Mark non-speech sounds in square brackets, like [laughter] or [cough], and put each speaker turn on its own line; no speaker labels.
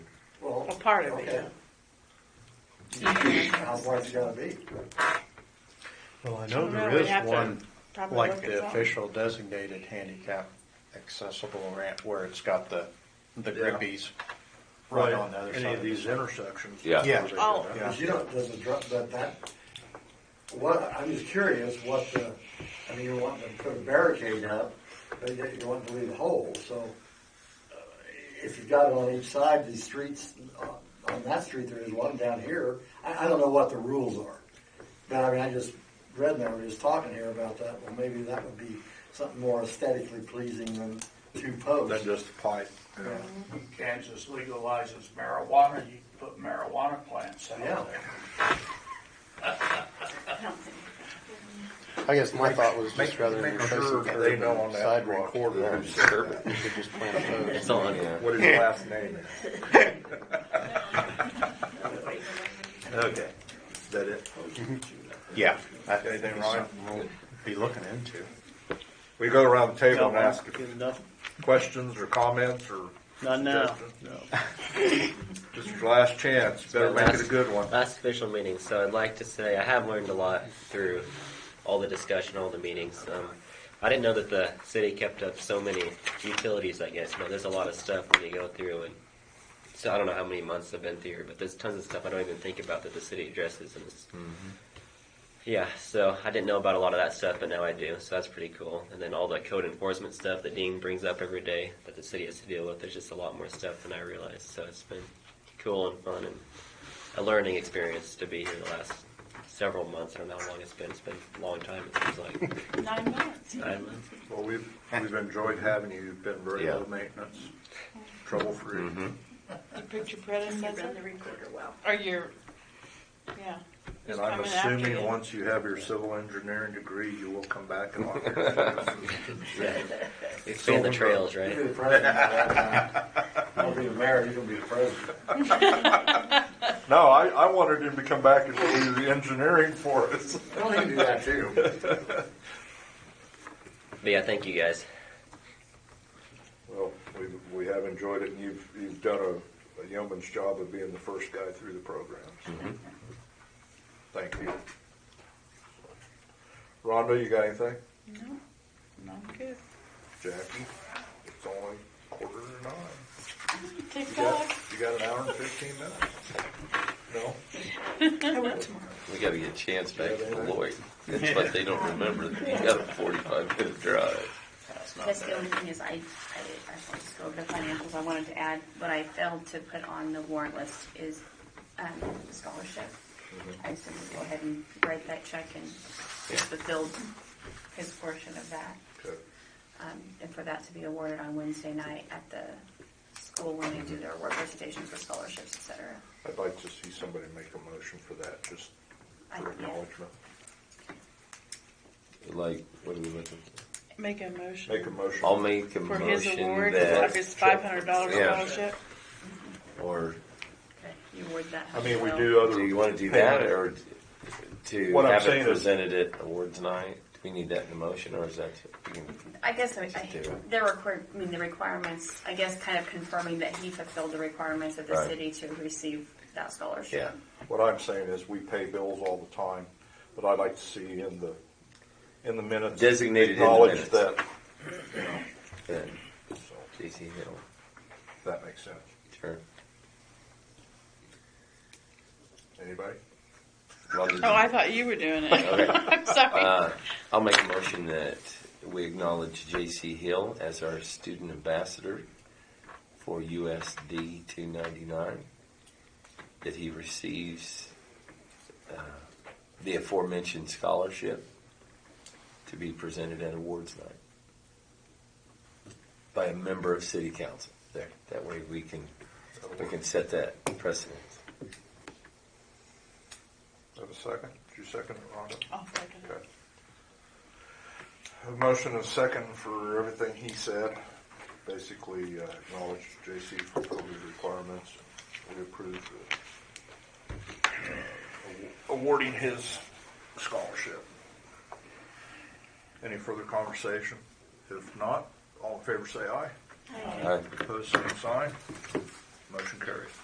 a part of
Okay.
it.
How far it's gotta be?
Well, I know
Well,
there
we'd
is
have to
one,
probably
like
look at
the
that.
official designated handicap accessible ramp where it's got the, the
Yeah.
grippies right on the other
Any
side.
of these intersections.
Yeah.
Yeah.
Oh.
Because you don't, does it drop, but that, what, I'm just curious what the, I mean, you're wanting to put a barricade up, but yet you're wanting to leave a hole, so uh, if you've got it on each side, these streets, on- on that street, there is one down here, I, I don't know what the rules are. But I mean, I just read and I was just talking here about that, well, maybe that would be something more aesthetically pleasing than two
Than
posts.
just a pipe.
Yeah.
Kansas legalizes marijuana, you can put marijuana plants out
Yeah.
there.
I guess my thought was
Make,
just rather than
make sure
replacing
they
curb
know on
and
that
sidewalk,
recorder
you
what
should just plant those.
on you.
his last name. Okay, is that it?
Yeah, that would
Anything
be
wrong?
something we'll be looking into.
We go around the table and
No,
ask
good enough.
questions or comments or
Not now.
suggestions. This is your last chance, better make it a good one.
Last official meeting, so I'd like to say I have learned a lot through all the discussion, all the meetings. Um, I didn't know that the city kept up so many utilities, I guess. You know, there's a lot of stuff when you go through and so I don't know how many months I've been through, but there's tons of stuff I don't even think about that the city addresses and it's
Mm-hmm.
yeah, so I didn't know about a lot of that stuff, but now I do, so that's pretty cool. And then all the code enforcement stuff that Dean brings up every day that the city has to deal with, there's just a lot more stuff than I realized. So it's been cool and fun and a learning experience to be here the last several months. I don't know how long it's been. It's been a long time, it seems like.
Nine months.
[laughs] Nine months.
Well, we've, we've enjoyed having you, you've been very
Yeah.
low maintenance, trouble free.
You picked your
You run
predecessor,
the recorder well.
or your, yeah.
And
Just
I'm
coming after
assuming
you.
once you have your civil engineering degree, you will come back and offer.
Yeah.
[laughs]
Expand the trails, right?
You're the president right now. I'll be the mayor, you're gonna be the president.
No, I, I wanted him to come back and do the engineering for us.
Well, he can do that too.
But yeah, thank you guys.
Well, we, we have enjoyed it, and you've, you've done a, a yeoman's job of being the first guy through the program. so Thank you. Rhonda, you got anything?
No, no, I'm good.
Jackie? It's only quarter to nine. You got,
TikTok.
you got an hour and fifteen minutes? No?
I work tomorrow.
We gotta get Chance back to Beloit. That's what they don't remember. You got a forty-five minute drive.
That's the only thing is I, I, I wanted to go over the financials. I wanted to add, what I failed to put on the warrant list is, um, the scholarship. I said we'll go ahead and write that check and fulfill his portion of that.
Okay.
Um, and for that to be awarded on Wednesday night at the school when they do their award presentations for scholarships, et cetera.
I'd like to see somebody make a motion for that, just
I-
for
yeah.
acknowledgement.
Like, what are we looking for?
Make a motion.
Make a motion.
I'll make a
For his
motion
award, of
that,
his five hundred dollar
Yeah.
scholarship.
or,
Okay, you award that.
I mean, we
Well,
do other.
do you wanna do that, or to
What I'm
have
saying
it
is-
presented at awards night? Do we need that in the motion, or is that, we can
I guess I,
Just do
I,
it.
there were, I mean, the requirements, I guess kind of confirming that he fulfilled the requirements of the
Right.
city to receive that scholarship.
yeah.
What I'm saying is, we pay bills all the time, but I'd like to see in the, in the minutes.
Designated in the
Acknowledge
minutes.
that,
Yeah,
so,
JC Hill,
if that makes sense.
sure.
Anybody?
Rhonda,
Oh, I thought you were doing it.
Okay.
[laughs] I'm sorry.
Uh, I'll make a motion that we acknowledge J.C. Hill as our student ambassador for USD 299, that he receives uh, the aforementioned scholarship to be presented at awards night by a member of city council. There, that way we can, we can set that precedent.
Have a second? Did you second it, Rhonda?
I'll second it.
Okay. A motion and a second for everything he said. Basically, uh, acknowledge J.C. fulfilled his requirements. We approve the, uh, awarding his scholarship. Any further conversation? If not, all in favor say aye.
All right.
Opposed, same sign. Motion carries.